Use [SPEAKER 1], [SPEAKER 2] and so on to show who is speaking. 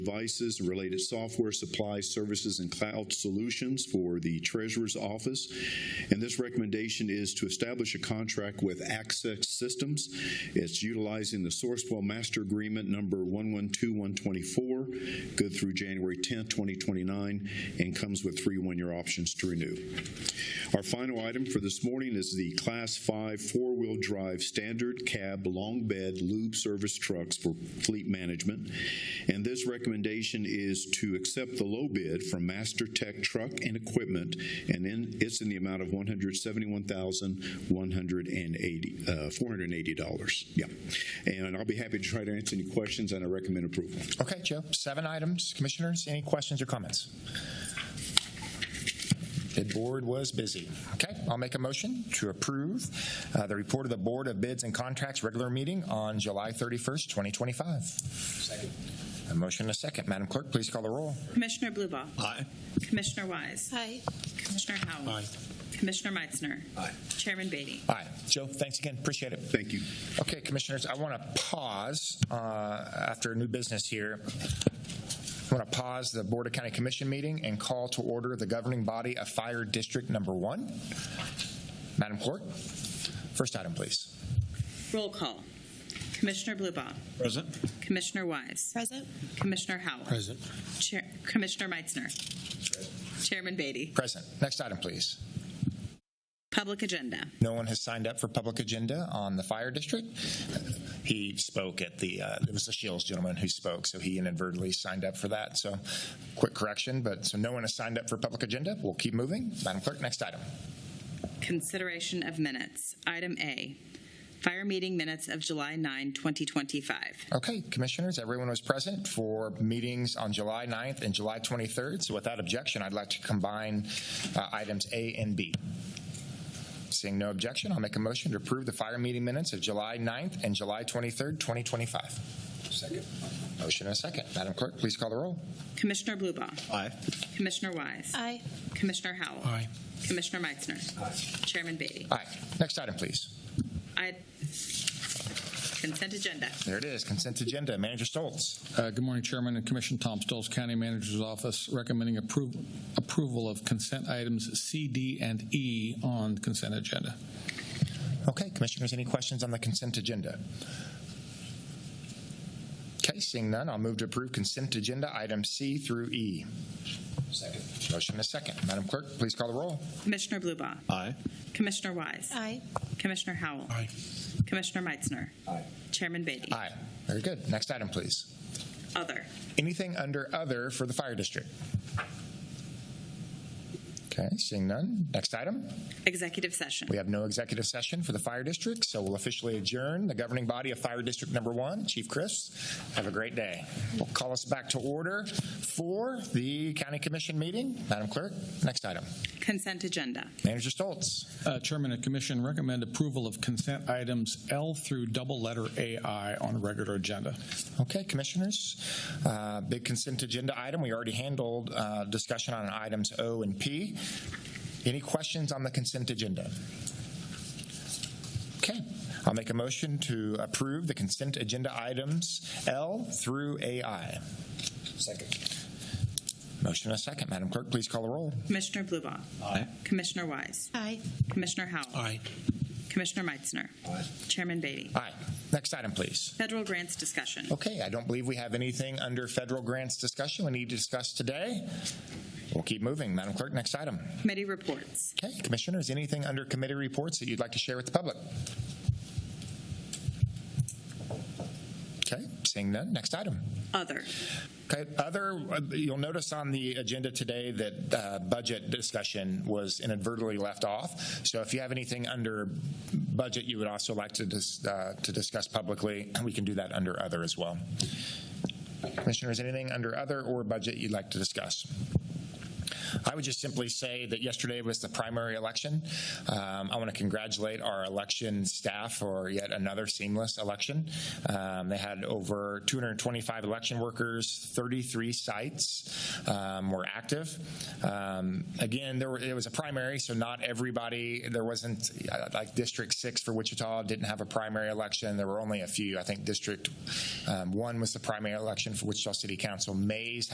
[SPEAKER 1] devices and related software, supplies, services, and cloud solutions for the Treasurer's Office. And this recommendation is to establish a contract with Access Systems. It's utilizing the Sourcewell Master Agreement number 112124, good through January 10th, 2029, and comes with three one-year options to renew. Our final item for this morning is the Class 5 four-wheel drive standard cab long bed lube service trucks for fleet management. And this recommendation is to accept the low bid from Master Tech Truck and Equipment, and then it's in the amount of $171,180, uh, $480. Yeah. And I'll be happy to try to answer any questions, and I recommend approval.
[SPEAKER 2] Okay, Joe, seven items. Commissioners, any questions or comments? The board was busy. Okay, I'll make a motion to approve uh, the report of the Board of Bids and Contracts regular meeting on July 31st, 2025. Second. A motion and a second. Madam Clerk, please call the roll.
[SPEAKER 3] Commissioner Blubow.
[SPEAKER 4] Aye.
[SPEAKER 3] Commissioner Wise.
[SPEAKER 5] Aye.
[SPEAKER 3] Commissioner Howell.
[SPEAKER 4] Aye.
[SPEAKER 3] Commissioner Meitzner.
[SPEAKER 4] Aye.
[SPEAKER 3] Chairman Beatty.
[SPEAKER 2] Aye. Joe, thanks again. Appreciate it.
[SPEAKER 1] Thank you.
[SPEAKER 2] Okay, Commissioners, I want to pause uh, after new business here. I want to pause the Board of County Commission meeting and call to order the governing body of Fire District Number One. Madam Clerk, first item, please.
[SPEAKER 3] Roll call. Commissioner Blubow.
[SPEAKER 4] Present.
[SPEAKER 3] Commissioner Wise.
[SPEAKER 5] Present.
[SPEAKER 3] Commissioner Howell.
[SPEAKER 4] Present.
[SPEAKER 3] Chair- Commissioner Meitzner. Chairman Beatty.
[SPEAKER 2] Present. Next item, please.
[SPEAKER 3] Public agenda.
[SPEAKER 2] No one has signed up for public agenda on the fire district. He spoke at the, uh, it was the Shields gentleman who spoke, so he inadvertently signed up for that. So quick correction, but so no one has signed up for public agenda. We'll keep moving. Madam Clerk, next item.
[SPEAKER 3] Consideration of minutes. Item A. Fire meeting minutes of July 9, 2025.
[SPEAKER 2] Okay, commissioners, everyone was present for meetings on July 9th and July 23rd. So without objection, I'd like to combine uh, items A and B. Seeing no objection, I'll make a motion to approve the fire meeting minutes of July 9th and July 23rd, 2025. Second. Motion and a second. Madam Clerk, please call the roll.
[SPEAKER 3] Commissioner Blubow.
[SPEAKER 4] Aye.
[SPEAKER 3] Commissioner Wise.
[SPEAKER 5] Aye.
[SPEAKER 3] Commissioner Howell.
[SPEAKER 4] Aye.
[SPEAKER 3] Commissioner Meitzner. Chairman Beatty.
[SPEAKER 2] Aye. Next item, please.
[SPEAKER 3] I Consent agenda.
[SPEAKER 2] There it is, consent agenda. Manager Stoltz.
[SPEAKER 6] Uh, Good morning, Chairman and Commission. Tom Stolz, County Manager's Office, recommending approval approval of consent items C, D, and E on consent agenda.
[SPEAKER 2] Okay, commissioners, any questions on the consent agenda? Okay, seeing none, I'll move to approve consent agenda item C through E. Second. Motion and a second. Madam Clerk, please call the roll.
[SPEAKER 3] Commissioner Blubow.
[SPEAKER 4] Aye.
[SPEAKER 3] Commissioner Wise.
[SPEAKER 5] Aye.
[SPEAKER 3] Commissioner Howell.
[SPEAKER 4] Aye.
[SPEAKER 3] Commissioner Meitzner.
[SPEAKER 2] Aye.
[SPEAKER 3] Chairman Beatty.
[SPEAKER 2] Aye. Very good. Next item, please.
[SPEAKER 3] Other.
[SPEAKER 2] Anything under other for the fire district? Okay, seeing none. Next item.
[SPEAKER 3] Executive session.
[SPEAKER 2] We have no executive session for the fire district, so we'll officially adjourn the governing body of Fire District Number One. Chief Chris, have a great day. We'll call us back to order for the county commission meeting. Madam Clerk, next item.
[SPEAKER 3] Consent agenda.
[SPEAKER 2] Manager Stoltz.
[SPEAKER 6] Uh, Chairman and Commission recommend approval of consent items L through double letter AI on regular agenda.
[SPEAKER 2] Okay, commissioners. Uh, Big consent agenda item. We already handled uh, discussion on items O and P. Any questions on the consent agenda? Okay, I'll make a motion to approve the consent agenda items L through AI. Second. Motion and a second. Madam Clerk, please call the roll.
[SPEAKER 3] Commissioner Blubow.
[SPEAKER 4] Aye.
[SPEAKER 3] Commissioner Wise.
[SPEAKER 5] Aye.
[SPEAKER 3] Commissioner Howell.
[SPEAKER 4] Aye.
[SPEAKER 3] Commissioner Meitzner. Chairman Beatty.
[SPEAKER 2] Aye. Next item, please.
[SPEAKER 3] Federal grants discussion.
[SPEAKER 2] Okay, I don't believe we have anything under federal grants discussion we need to discuss today. We'll keep moving. Madam Clerk, next item.
[SPEAKER 3] Committee reports.
[SPEAKER 2] Okay, commissioners, anything under committee reports that you'd like to share with the public? Okay, seeing none, next item.
[SPEAKER 3] Other.
[SPEAKER 2] Okay, other, uh, you'll notice on the agenda today that uh, budget discussion was inadvertently left off. So if you have anything under budget you would also like to dis- uh, to discuss publicly, we can do that under other as well. Commissioners, anything under other or budget you'd like to discuss? I would just simply say that yesterday was the primary election. Um, I want to congratulate our election staff for yet another seamless election. Um, they had over 225 election workers, 33 sites um, were active. Um, again, there were, it was a primary, so not everybody, there wasn't uh, like District 6 for Wichita didn't have a primary election. There were only a few. I think District um, 1 was the primary election for Wichita City Council. Mays